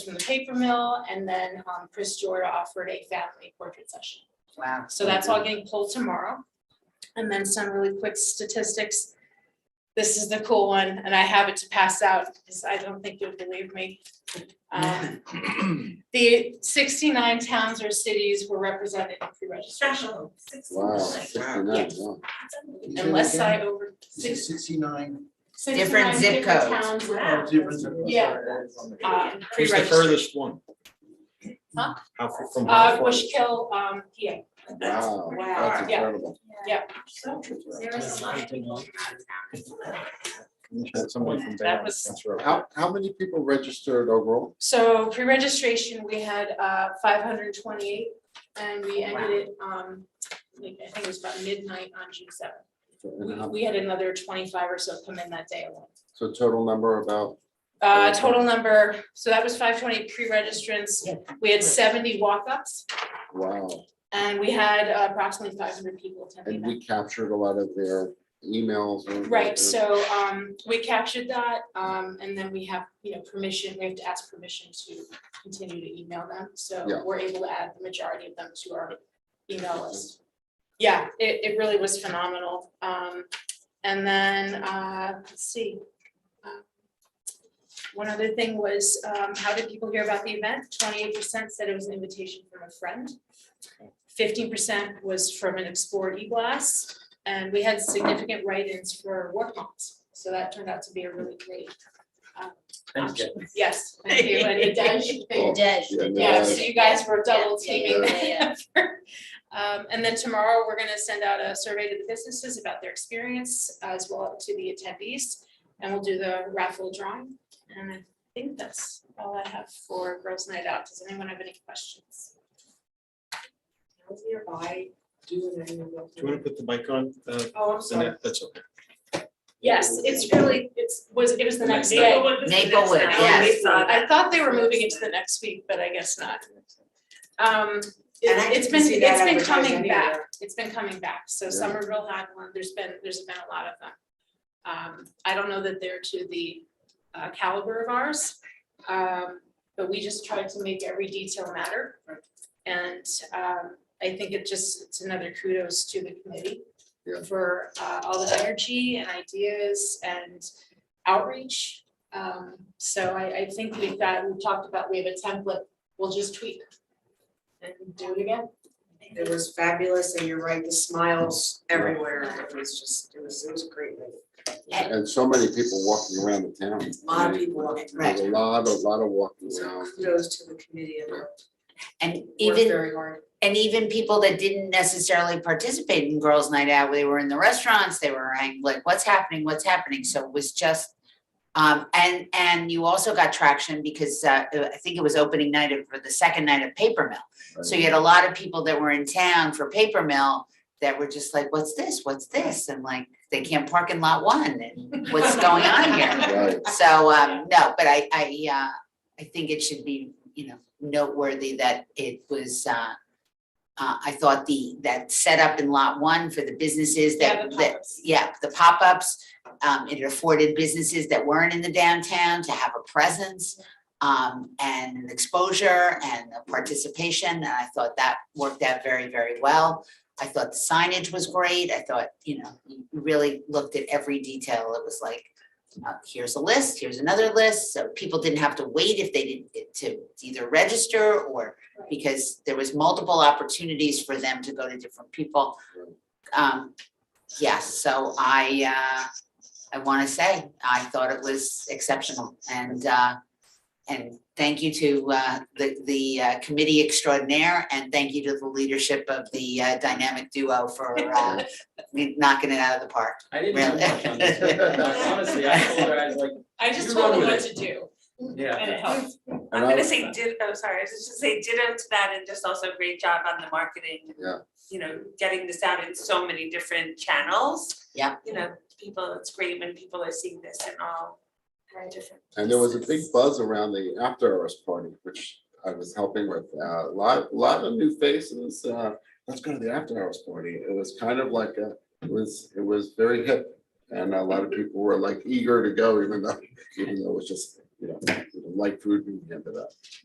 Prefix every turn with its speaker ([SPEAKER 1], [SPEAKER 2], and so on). [SPEAKER 1] to the paper mill, and then um, Chris Jordan offered a family portrait session.
[SPEAKER 2] Wow.
[SPEAKER 1] So that's all getting pulled tomorrow. And then some really quick statistics. This is the cool one, and I have it to pass out, because I don't think you'll believe me. Um, The sixty-nine towns or cities were represented in pre-registration,
[SPEAKER 3] Special. six-
[SPEAKER 4] Wow,
[SPEAKER 3] like,
[SPEAKER 4] sixty-nine,
[SPEAKER 1] Yes.
[SPEAKER 4] wow.
[SPEAKER 1] unless I over. six-
[SPEAKER 5] Sixty-nine.
[SPEAKER 1] 69
[SPEAKER 2] Different zip
[SPEAKER 1] different
[SPEAKER 2] codes.
[SPEAKER 1] towns were,
[SPEAKER 3] Wow.
[SPEAKER 5] Difference.
[SPEAKER 1] Yeah. um,
[SPEAKER 6] Who's the
[SPEAKER 1] pre-registered.
[SPEAKER 6] furthest one?
[SPEAKER 1] Huh?
[SPEAKER 6] How, far- from
[SPEAKER 1] Uh,
[SPEAKER 6] how far?
[SPEAKER 1] Bushkill, um, yeah,
[SPEAKER 4] Wow,
[SPEAKER 3] Wow.
[SPEAKER 4] that's incredible.
[SPEAKER 3] So, there is a lot of people from out of town.
[SPEAKER 6] Someone from
[SPEAKER 1] That
[SPEAKER 6] Bayonne,
[SPEAKER 1] was-
[SPEAKER 6] that's right.
[SPEAKER 4] How, how many people registered overall?
[SPEAKER 1] so pre-registration, we had, uh, five hundred and twenty-eight, and we ended it, um, like, I think it was about midnight on June seventh.
[SPEAKER 4] And
[SPEAKER 1] We,
[SPEAKER 4] how-
[SPEAKER 1] we had another twenty-five or so come in that day alone.
[SPEAKER 4] So total number about,
[SPEAKER 1] Uh,
[SPEAKER 4] Okay.
[SPEAKER 1] total number, so that was five twenty pre-registrants, we had seventy walk-ups,
[SPEAKER 4] wow.
[SPEAKER 1] and we had uh, approximately five hundred people attending
[SPEAKER 4] And
[SPEAKER 1] that.
[SPEAKER 4] we captured a lot of their emails. and-
[SPEAKER 1] Right, so, um, we captured that, um, and then we have, you know, permission, we have to ask permission to continue to email them, so
[SPEAKER 4] Yeah.
[SPEAKER 1] we're able to add the majority of them to our email list. Yeah, it, it really was phenomenal, um, and then, uh, let's see. Uh, One other thing was, um, how did people hear about the event? Twenty-eight percent said it was an invitation from a friend. Fifteen percent was from an Explore E-Blast, and we had significant write-ins for work comps, so that turned out to be a really great. um,
[SPEAKER 6] Thanks,
[SPEAKER 1] option. Yes, thank you, and it does-
[SPEAKER 4] Cool. Yeah, no,
[SPEAKER 1] yeah,
[SPEAKER 4] that's-
[SPEAKER 1] so you guys were double
[SPEAKER 3] Yeah, yeah,
[SPEAKER 1] teaming.
[SPEAKER 3] yeah, yeah.
[SPEAKER 1] Um, and then tomorrow, we're gonna send out a survey to the businesses about their experience as well to the attendees. And we'll do the raffle drawing, and I think that's all I have for Girls Night Out, does anyone have any questions?
[SPEAKER 3] Towns nearby do an annual local-
[SPEAKER 6] Do you want to put the mic on? Uh,
[SPEAKER 3] Oh, I'm sorry.
[SPEAKER 6] Annette? That's okay.
[SPEAKER 1] Yes, it's really, it's, was, it was the next day.
[SPEAKER 3] Maplewood,
[SPEAKER 2] Maplewood,
[SPEAKER 1] yes.
[SPEAKER 3] We saw
[SPEAKER 1] I
[SPEAKER 3] that.
[SPEAKER 1] thought they were moving into the next week, but I guess not. Um, it-
[SPEAKER 2] And I
[SPEAKER 1] it's
[SPEAKER 2] didn't
[SPEAKER 1] been,
[SPEAKER 2] see that
[SPEAKER 1] it's been
[SPEAKER 2] advertising
[SPEAKER 1] coming
[SPEAKER 2] either.
[SPEAKER 1] back, it's been coming back, so
[SPEAKER 4] Yeah.
[SPEAKER 1] Somerville had one, there's been, there's been a lot of them. Um, I don't know that they're to the uh, caliber of ours, um, but we just try to make every detail matter. And, um, I think it just, it's another kudos to the committee
[SPEAKER 4] Yeah.
[SPEAKER 1] for, uh, all the energy and ideas and outreach. Um, so I, I think we've got, we talked about, we have a template, we'll just tweak and do it again.
[SPEAKER 3] It was fabulous, and you're right, the smiles everywhere, it was just, it was, it was a great. night.
[SPEAKER 4] And so many people walking around the town.
[SPEAKER 3] A lot of people walking,
[SPEAKER 4] There's
[SPEAKER 2] Right,
[SPEAKER 4] a lot, a lot of walking
[SPEAKER 3] so
[SPEAKER 4] around.
[SPEAKER 3] kudos to the committee and worked
[SPEAKER 2] and even,
[SPEAKER 3] very hard.
[SPEAKER 2] and even people that didn't necessarily participate in Girls Night Out, they were in the restaurants, they were hanging, like, what's happening, what's happening, so it was just. Um, and, and you also got traction because, uh, I think it was opening night of, or the second night of Paper Mill. So you had a lot of people that were in town for Paper Mill that were just like, what's this, what's this, and like, they can't park in lot one, and what's going on here?
[SPEAKER 4] Right.
[SPEAKER 2] So, um, no, but I, I, uh, I think it should be, you know, noteworthy that it was, uh, uh, I thought the, that setup in lot one for the businesses
[SPEAKER 1] Yeah,
[SPEAKER 2] that,
[SPEAKER 1] the
[SPEAKER 2] that,
[SPEAKER 1] pop-ups.
[SPEAKER 2] yeah, the pop-ups. Um, it afforded businesses that weren't in the downtown to have a presence, um, and an exposure and a participation. And I thought that worked out very, very well. I thought the signage was great. I thought, you know, you really looked at every detail. It was like, uh, here's a list, here's another list, so people didn't have to wait if they didn't get to either register or
[SPEAKER 1] Right.
[SPEAKER 2] because there was multiple opportunities for them to go to different people. Um, yes, so I, uh, I want to say, I thought it was exceptional and, uh, and thank you to, uh, the, the uh, committee extraordinaire and thank you to the leadership of the uh, dynamic duo for, uh, knocking it out of the park.
[SPEAKER 7] I didn't have
[SPEAKER 2] Really?
[SPEAKER 7] much on this, but honestly, I told her, I was like,
[SPEAKER 1] I just
[SPEAKER 7] You
[SPEAKER 1] told
[SPEAKER 7] run
[SPEAKER 1] them what
[SPEAKER 7] with
[SPEAKER 1] to do
[SPEAKER 7] yeah.
[SPEAKER 1] and it helped.
[SPEAKER 4] And
[SPEAKER 8] I'm
[SPEAKER 4] I
[SPEAKER 8] gonna
[SPEAKER 4] was-
[SPEAKER 8] say did, oh, sorry, I was just gonna say ditto to that and just also great job on the marketing. and,
[SPEAKER 4] Yeah.
[SPEAKER 8] You know, getting this out in so many different channels.
[SPEAKER 2] Yeah.
[SPEAKER 8] You know, people, it's great when people are seeing this in all uh, different.
[SPEAKER 4] And there was a big
[SPEAKER 8] places.
[SPEAKER 4] buzz around the after hours party, which I was helping with. Uh, A lot, lot of new faces. uh, Let's go to the after hours party. It was kind of like a, it was, it was very hip. And a lot of people were like eager to go, even though, even though it was just, you know, you know, light food and we ended up.